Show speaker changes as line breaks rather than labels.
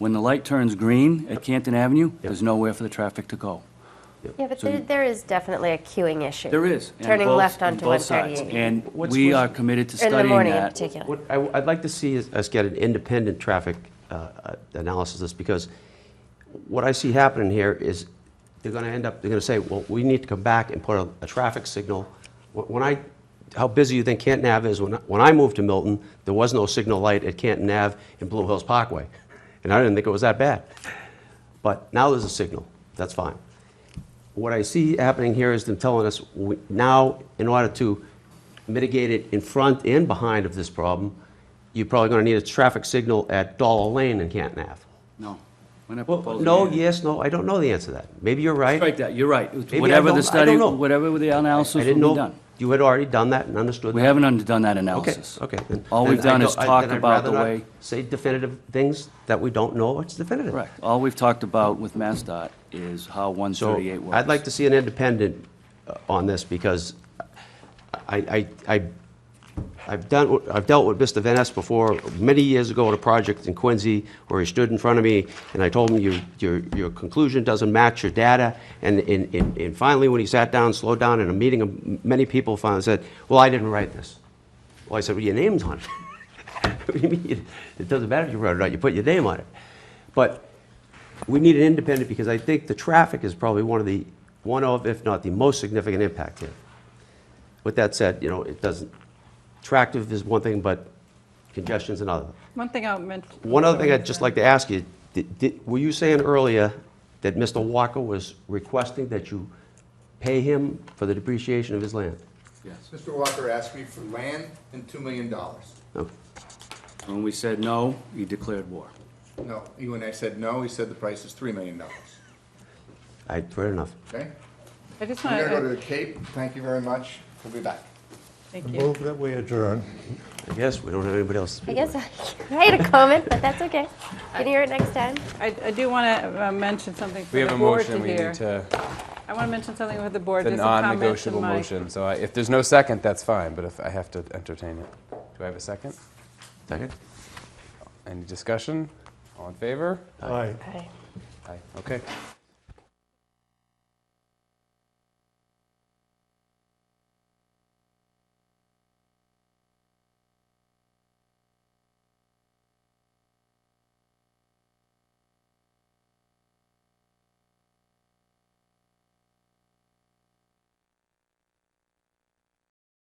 When the light turns green at Canton Avenue, there's nowhere for the traffic to go.
Yeah, but
So
there,
you-
there is definitely a queuing issue.
There is. and
Turning
both-
left
and
onto
both sides.
138.
And
What's-
we are
what's-
committed to
In the
studying that.
morning in particular.
What I, would like to see is us get an independent traffic uh, uh, analysis of this, because what I see happening here is they're gonna end up, they're gonna say, well, we need to come back and put a, a traffic signal. Wh- When I, how busy you think Canton Ave is, when, I- when I moved to Milton, there was no signal light at Canton Ave and Blue Hills Parkway, and I didn't think it was that bad. But now there's a signal, that's fine. What I see happening here is them telling us, we- now, in order to mitigate it in front and behind of this problem, you're probably gonna need a traffic signal at Dollar Lane and Canton Ave.
No. We're not
Well,
proposing
no,
that.
yes, no, I don't know the answer to that. Maybe you're right.
Strike that, you're right.
I
Whatever
don't- I
the study,
don't know.
whatever the analysis
I
will be
didn't know,
done.
you had already done that and understood
We
that.
haven't undone that
Okay,
analysis.
okay. then-
All we've
then I
done
don't-
is
I-
talk
then I'd
about the
rather not
way-
Say definitive things that we don't know, it's definitive.
Correct. All we've talked about with MassDOT is how
So
138 works.
I'd like to see an independent uh, on this because I, I, I- I've done, I've dealt with Mr. Van Ness before, many years ago at a project in Quincy where he stood in front of me and I told him, your, your, your conclusion doesn't match your data. And, and, and and finally, when he sat down, slowed down in a meeting of many people, finally said, well, I didn't write this. Well, I said, well, your name's on it. What do you mean? It doesn't matter if you wrote it or not, you put your name on it. But we need an independent because I think the traffic is probably one of the, one of, if not the most significant impact here. With that said, you know, it doesn't, attractive is one thing, but congestion's another.
One thing I meant.
One other thing I'd just like to ask you, did- did- were you saying earlier that Mr. Walker was requesting that you pay him for the depreciation of his land?
Yes.
Mr. Walker asked me for land and $2 million.
No.
When we said no, you declared war.
No, he- when I said no, he said the price is $3 million.
I, fair enough.
Okay?
I just
I'm
want
going to go to
to,
the Cape. Thank you very much. We'll be back.
thank you.
Move that we adjourn.
I guess we don't have anybody else. to
I
speak
guess
with.
I I had a comment, but that's okay. Can you hear it next time?
I I do want to mention something for
We
the
have a
board to
motion, we
hear.
need to,
I want to mention something with the board.
the
There's a comment to
non-negotiable
my.
motion, so I- if there's no second, that's fine, but if I have to entertain it. Do I have a second?
Second?
Any discussion? All in favor?
Aye.
Aye, okay.